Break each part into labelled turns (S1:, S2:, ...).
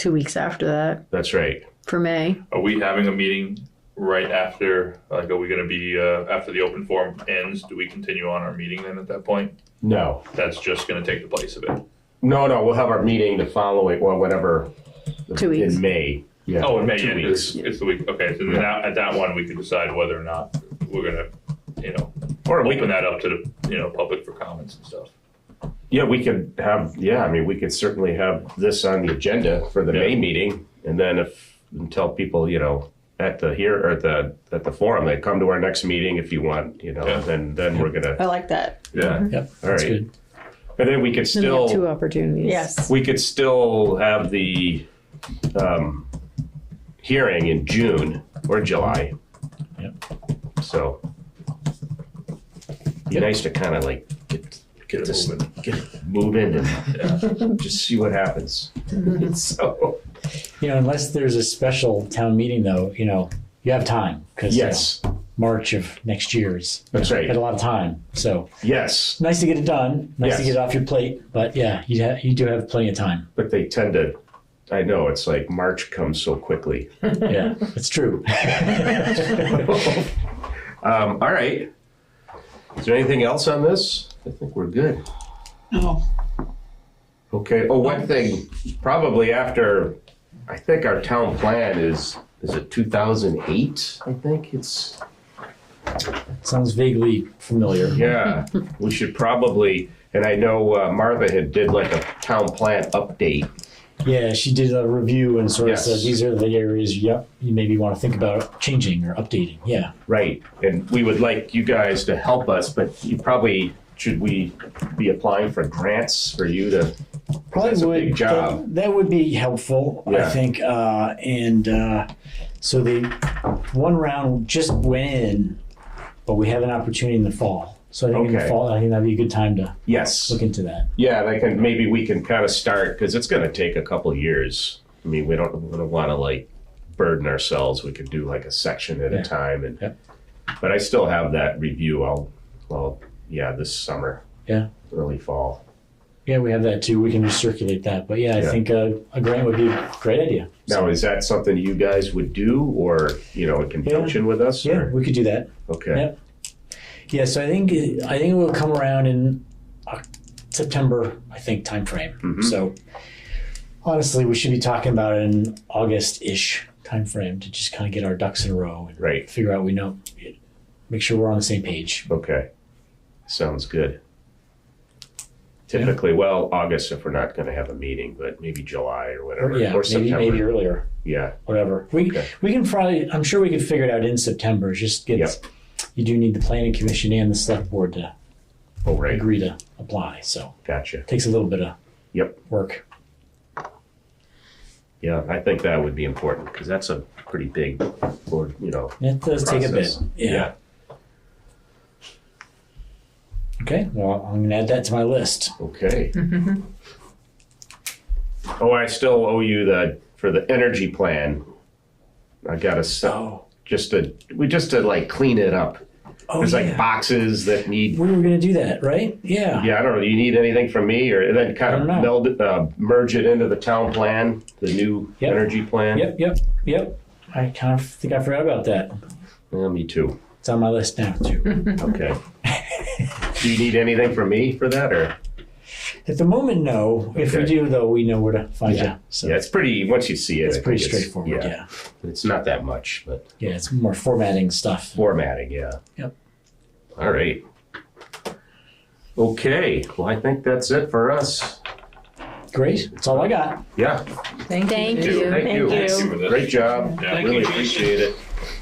S1: two weeks after that
S2: That's right.
S1: for May.
S3: Are we having a meeting right after, like, are we gonna be, uh, after the open forum ends, do we continue on our meeting then at that point?
S2: No,
S3: That's just gonna take the place of it.
S2: no, no. We'll have our meeting the following, or whatever.
S1: Two weeks.
S2: in May. Yeah.
S3: Oh, in May,
S2: Two
S3: yeah,
S2: weeks.
S3: it's, it's the week, okay, so then that, at that one, we can decide whether or not we're gonna, you know,
S2: Or we can,
S3: open that up to the, you know, public for comments and stuff.
S2: yeah, we could have. Yeah, I mean, we could certainly have this on the agenda for the May
S3: Yeah.
S2: meeting, and then if and tell people, you know, at the here or at the at the forum, they come to our next meeting if you want. You know,
S3: Yeah.
S2: then then we're gonna.
S4: I like that.
S2: Yeah.
S5: Yep,
S2: All
S5: that's
S2: right.
S5: good.
S2: And then we could
S1: Mm-hmm. Then we
S2: still.
S1: have two opportunities.
S4: Yes.
S2: we could still have the um, hearing in June or July.
S5: Yep.
S2: So be
S5: Yep.
S2: nice to kind of like get
S3: Get
S2: get
S3: it
S2: this
S3: moving.
S2: get it moving and just see what happens. so
S5: You know, unless there's a special town meeting though, you know, you have time because
S2: yes,
S5: March of next year is you
S2: That's
S5: know,
S2: right.
S5: Got a lot of time, so
S2: yes,
S5: nice to get it done. Nice to
S2: Yes.
S5: get it off your plate, but yeah, you ha- you do have plenty of time.
S2: but they tend to. I know it's like March comes so quickly.
S5: Yeah, it's true.
S2: Um, all right. Is there anything else on this? I think we're good.
S4: No.
S2: Okay. Oh, one thing, probably after, I think our town plan is, is it 2008? I think it's.
S5: Sounds vaguely familiar.
S2: Yeah, we should probably, and I know uh, Martha had did like a town plan update.
S5: Yeah, she did a review and sort
S2: Yes.
S5: of said these are the areas yep, you maybe want to think about changing or updating. Yeah.
S2: Right. And we would like you guys to help us, but you probably, should we be applying for grants for you to?
S5: Probably
S2: That's a
S5: would.
S2: big job.
S5: That, that would be helpful,
S2: Yeah.
S5: I think. Uh, and uh, so the one round just went in, but we have an opportunity in the fall. So I think in the
S2: Okay.
S5: fall, I think that'd be a good time to
S2: Yes.
S5: look into that.
S2: Yeah, they can, maybe we can kind of start, because it's gonna take a couple years. I mean, we don't, we don't wanna like burden ourselves, we could do like a section at
S5: Yeah.
S2: a time and,
S5: Yep.
S2: but I still have that review, I'll, well, yeah, this summer.
S5: Yeah.
S2: Early fall.
S5: Yeah, we have that too. We can recirculate that. But yeah, I
S2: Yeah.
S5: think uh, a grant would be a great idea.
S2: Now, is that something you guys would do, or, you know, in conjunction with us?
S5: Yeah,
S2: or-
S5: we could do that.
S2: Okay,
S5: Yep. Yeah, so I think I think it will come around in Oc- September, I think timeframe.
S2: Mhm.
S5: So honestly, we should be talking about it in August-ish timeframe to just kind of get our ducks in a row and
S2: Right.
S5: figure out we know, make sure we're on the same page.
S2: okay, sounds good. Typically, well, August if we're not gonna have a meeting, but maybe July or
S5: Or,
S2: whatever,
S5: yeah,
S2: or
S5: maybe maybe
S2: September,
S5: earlier,
S2: yeah,
S5: whatever. We
S2: Okay.
S5: we can probably I'm sure we can figure it out in September. Just get
S2: Yep.
S5: you do need the planning commission and the select board to
S2: oh, right,
S5: agree to apply. So
S2: gotcha,
S5: takes a little bit of
S2: yep.
S5: work.
S2: Yeah, I think that would be important because that's a pretty big, or you know,
S5: It does take a bit.
S2: process.
S5: yeah. Okay, well, I'm gonna add that to my list.
S2: Okay. oh, I still owe you the for the energy plan. I gotta stop
S5: Oh,
S2: just to we just to like clean it up.
S5: oh,
S2: There's
S5: yeah.
S2: like boxes that need.
S5: we were gonna do that, right? Yeah.
S2: Yeah, I don't know. Do you need anything from me, or and then kind
S5: I
S2: of
S5: don't know.
S2: meld it, uh, merge it into the town plan, the new
S5: Yep.
S2: energy plan?
S5: Yep, yep, yep. I kind of think I forgot about that.
S2: Yeah, me too.
S5: It's on my list now too.
S2: Okay. do you need anything from me for that, or?
S5: At the moment, no. If we
S2: Okay.
S5: do, though, we know where to find
S2: Yeah.
S5: you. So
S2: Yeah, it's pretty. Once you see it,
S5: it's
S2: I think
S5: pretty straightforward.
S2: yeah.
S5: yeah.
S2: It's not that much, but
S5: Yeah, it's more formatting stuff.
S2: formatting, yeah.
S5: Yep.
S2: All right. Okay, well, I think that's it for us.
S5: Great. That's all I got.
S2: Yeah,
S4: Thank,
S1: Thank
S4: you.
S1: you.
S2: thank you.
S4: Thank
S3: you for this.
S2: Great job.
S3: Yeah. Thank
S2: Really
S3: you, Jason.
S2: appreciate it.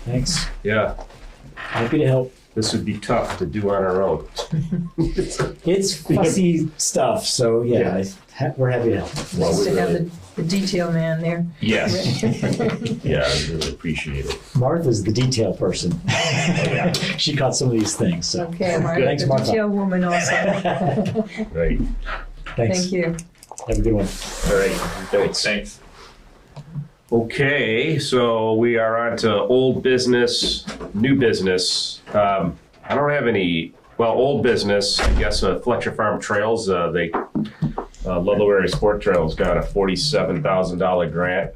S5: Thanks.
S2: Yeah,
S5: Happy to help.
S2: this would be tough to do on our own.
S5: It's fussy stuff, so yeah,
S2: Yeah.
S5: I- ha- we're happy to help.
S2: Well,
S4: Nice
S2: we
S4: to have
S2: really-
S4: the, the detail man there.
S2: Yes. Yeah, I really appreciate it.
S5: Martha's the detail person.
S2: Oh,
S5: she caught some of these things. So.
S4: Okay, Martha.
S5: Thanks, Martha.
S4: The detail woman also.
S2: Right.
S5: Thanks.
S4: Thank you.
S5: Have a good one.
S2: All right. Thanks.
S3: Thanks.
S2: Okay, so we are on to old business, new business. Um, I don't have any, well, old business, I guess, uh, Fletcher Farm Trails, uh, they Uh, Ludlow Area Sport Trail's got a forty-seven thousand dollar grant